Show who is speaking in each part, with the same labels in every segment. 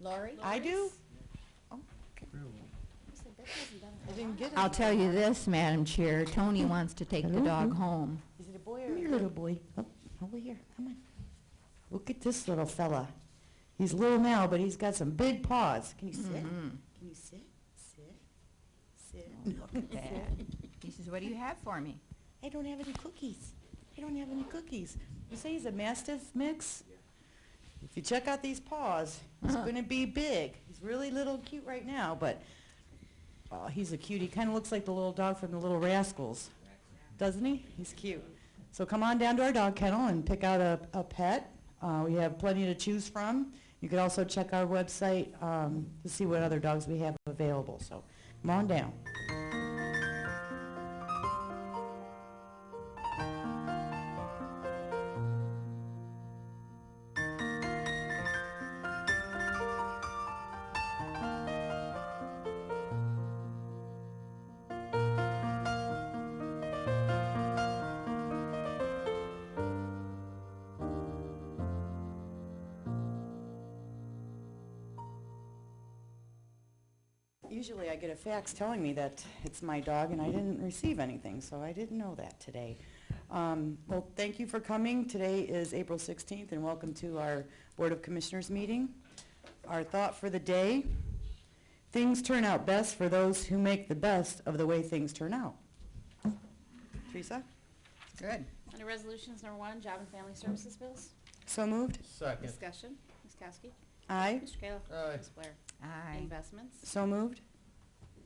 Speaker 1: Lori?
Speaker 2: I do? I didn't get it.
Speaker 3: I'll tell you this, Madam Chair, Tony wants to take the dog home.
Speaker 2: Is it a boy or?
Speaker 4: Come here, little boy. Oh, over here, come on. Look at this little fella. He's little now, but he's got some big paws. Can you sit?
Speaker 3: Mhm.
Speaker 4: Can you sit? Sit? Sit?
Speaker 3: Oh, look at that. He says, what do you have for me?
Speaker 4: I don't have any cookies. I don't have any cookies. You say he's a Mastiff mix? If you check out these paws, he's
Speaker 3: Uh-huh.
Speaker 4: going to be big. He's really little and cute right now, but oh, he's a cutie. Kind of looks like the little dog from the Little Rascals, doesn't he? He's cute. So come on down to our dog kennel and pick out a, a pet. Uh, we have plenty to choose from. You can also check our website um, to see what other dogs we have available. So come on down. Usually I get a fax telling me that it's my dog, and I didn't receive anything, so I didn't know that today. Um, Well, thank you for coming. Today is April 16th, and welcome to our Board of Commissioners meeting. Our thought for the day, things turn out best for those who make the best of the way things turn out. Teresa?
Speaker 3: Good.
Speaker 1: Under Resolutions Number One, Job and Family Services Bills.
Speaker 4: So moved?
Speaker 5: Second.
Speaker 1: Discussion, Ms. Kowski.
Speaker 4: Aye.
Speaker 1: Mr. Kayla.
Speaker 5: Aye.
Speaker 1: Ms. Blair.
Speaker 3: Aye.
Speaker 1: Investments.
Speaker 4: So moved?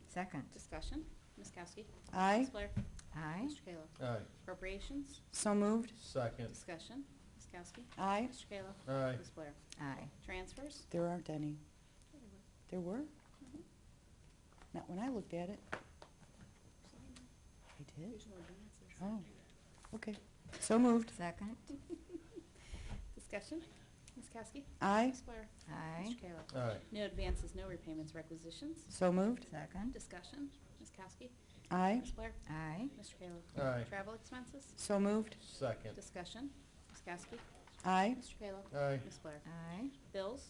Speaker 3: Second.
Speaker 1: Discussion, Ms. Kowski.
Speaker 4: Aye.
Speaker 1: Ms. Blair.
Speaker 3: Aye.
Speaker 1: Mr. Kayla.
Speaker 5: Aye.
Speaker 1: Appropriations.
Speaker 4: So moved?
Speaker 5: Second.
Speaker 1: Discussion, Ms. Kowski.
Speaker 4: Aye.
Speaker 1: Mr. Kayla.
Speaker 5: Aye.
Speaker 1: Ms. Blair.
Speaker 3: Aye.
Speaker 1: Transfers.
Speaker 4: There aren't any. There were? Not when I looked at it. I did? Oh, okay. So moved.
Speaker 3: Second.
Speaker 1: Discussion, Ms. Kowski.
Speaker 4: Aye.
Speaker 1: Ms. Blair.
Speaker 3: Aye.
Speaker 1: Mr. Kayla.
Speaker 5: Aye.
Speaker 1: No advances, no repayments, requisitions.
Speaker 4: So moved.
Speaker 3: Second.
Speaker 1: Discussion, Ms. Kowski.
Speaker 4: Aye.
Speaker 1: Ms. Blair.
Speaker 3: Aye.
Speaker 1: Mr. Kayla.
Speaker 5: Aye.
Speaker 1: Travel expenses.
Speaker 4: So moved.
Speaker 5: Second.
Speaker 1: Discussion, Ms. Kowski.
Speaker 4: Aye.
Speaker 1: Mr. Kayla.
Speaker 5: Aye.
Speaker 1: Ms. Blair.
Speaker 3: Aye.
Speaker 1: Bills.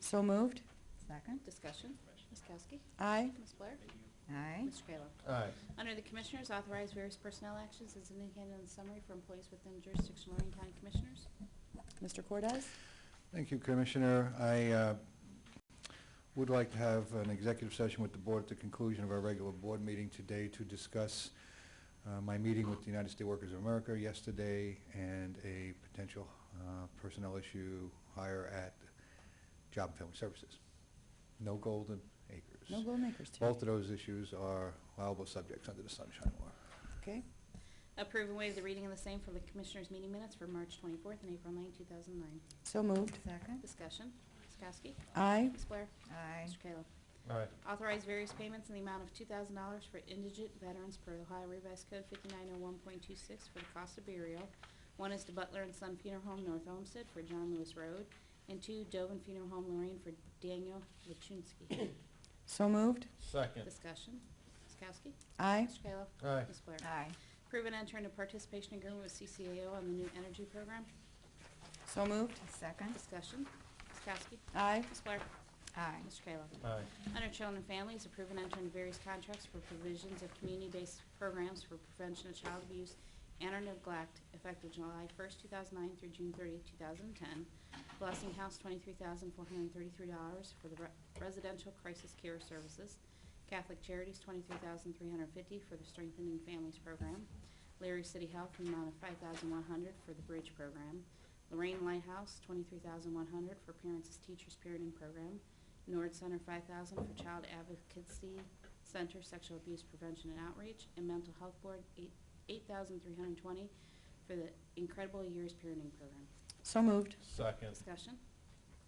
Speaker 4: So moved.
Speaker 3: Second.
Speaker 1: Discussion, Ms. Kowski.
Speaker 4: Aye.
Speaker 1: Ms. Blair.
Speaker 3: Aye.
Speaker 1: Mr. Kayla.
Speaker 5: Aye.
Speaker 1: Under the Commissioners, authorize various personnel actions as indicated in the summary for employees within jurisdiction of Lorraine County Commissioners.
Speaker 4: Mr. Cordez?
Speaker 6: Thank you, Commissioner. I uh, would like to have an executive session with the board at the conclusion of our regular board meeting today to discuss uh, my meeting with the United States Workers of America yesterday and a potential uh, personnel issue hire at Job and Family Services. No golden acres.
Speaker 4: No goal makers today.
Speaker 6: Both of those issues are liable subjects under the Sunshine Law.
Speaker 4: Okay.
Speaker 1: Approve and waive the reading of the same for the Commissioners' meeting minutes for March 24th and April 9, 2009.
Speaker 4: So moved.
Speaker 3: Second.
Speaker 1: Discussion, Ms. Kowski.
Speaker 4: Aye.
Speaker 1: Ms. Blair.
Speaker 3: Aye.
Speaker 1: Mr. Kayla.
Speaker 5: Aye.
Speaker 1: Authorize various payments in the amount of $2,000 for indigent veterans per Ohio Revised Code 5901.26 for the cost of burial. One is to Butler and Son Funeral Home, North Olmsted, for John Lewis Road, and two, Dovin Funeral Home, Lorraine, for Daniel Lachunsky.
Speaker 4: So moved.
Speaker 5: Second.
Speaker 1: Discussion, Ms. Kowski.
Speaker 4: Aye.
Speaker 1: Mr. Kayla.
Speaker 5: Aye.
Speaker 1: Ms. Blair.
Speaker 3: Aye.
Speaker 1: Approve and enter into participation agreement with CCAO on the new energy program.
Speaker 4: So moved.
Speaker 3: Second.
Speaker 1: Discussion, Ms. Kowski.
Speaker 4: Aye.
Speaker 1: Ms. Blair.
Speaker 3: Aye.
Speaker 1: Mr. Kayla.
Speaker 5: Aye.
Speaker 1: Under Children and Families, approve and enter into various contracts for provisions of community-based programs for prevention of child abuse and or neglect effective July 1st, 2009 through June 30th, 2010. Blessing House, $23,433 for the re- residential crisis care services. Catholic Charities, $23,350 for the Strengthening Families Program. Larry City Health, an amount of 5100 for the Bridge Program. Lorraine Lighthouse, 23100 for Parents as Teachers Parenting Program. Nord Center, 5000 for Child Advocacy Center Sexual Abuse Prevention and Outreach. And Mental Health Board, eight- 8320 for the Incredible Years Parenting Program.
Speaker 4: So moved.
Speaker 5: Second.
Speaker 1: Discussion?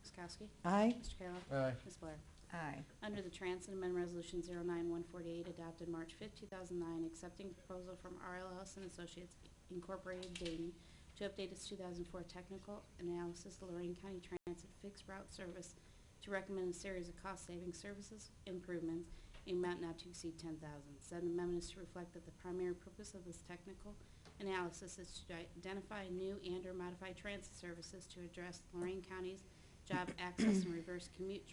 Speaker 1: Ms. Kowski?
Speaker 4: Aye.
Speaker 1: Mr. Kayla?
Speaker 5: Aye.
Speaker 1: Ms. Blair?
Speaker 3: Aye.
Speaker 1: Under the Transit Amendment Resolution 09148, adopted March 5, 2009, accepting proposal from RLS and Associates Incorporated Dayton to update its 2004 technical analysis of Lorraine County Transit fixed route service to recommend a series of cost-saving services improvements in amount not to exceed 10000 Said amendment is to reflect that the primary purpose of this technical analysis is to identify new and/or modified transit services to address Lorraine County's job access and reverse commute